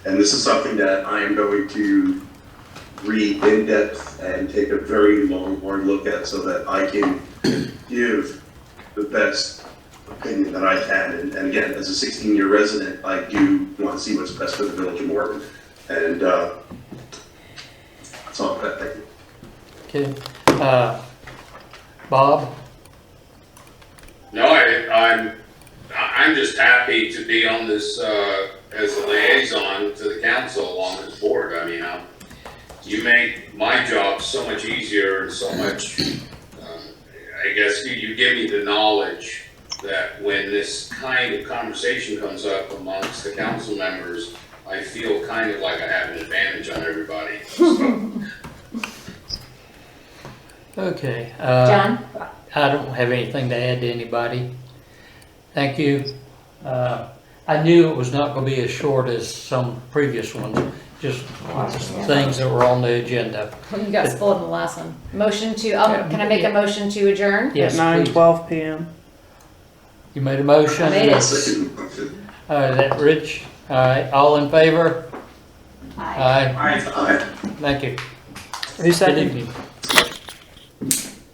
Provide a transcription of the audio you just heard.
And this is something that I am going to read in depth and take a very long, hard look at so that I can give the best opinion that I can. And, and again, as a 16-year resident, I do want to see what's best for the village of Morton. And, uh, that's all I've got. Thank you. Okay, uh, Bob, No, I, I'm, I- I'm just happy to be on this, uh, as a liaison to the council along this board. I mean, I'm, you make my job so much easier and so much, um, I guess you, you give me the knowledge that when this kind of conversation comes up amongst the council members, I feel kind of like I have an advantage on everybody. okay. uh, John? I don't have anything to add to anybody. Thank you. Uh, I knew it was not gonna be as short as some previous ones, just things that were on the agenda. You got spoiled in the last one. Motion to, um, can I make a motion to adjourn? Yes, at nine please. twelve p.m. You made a motion? I made it. Second motion. Uh, is that Rich? All right, all in favor? Aye. Aye, Aye. thank you. Who Good seconded? evening.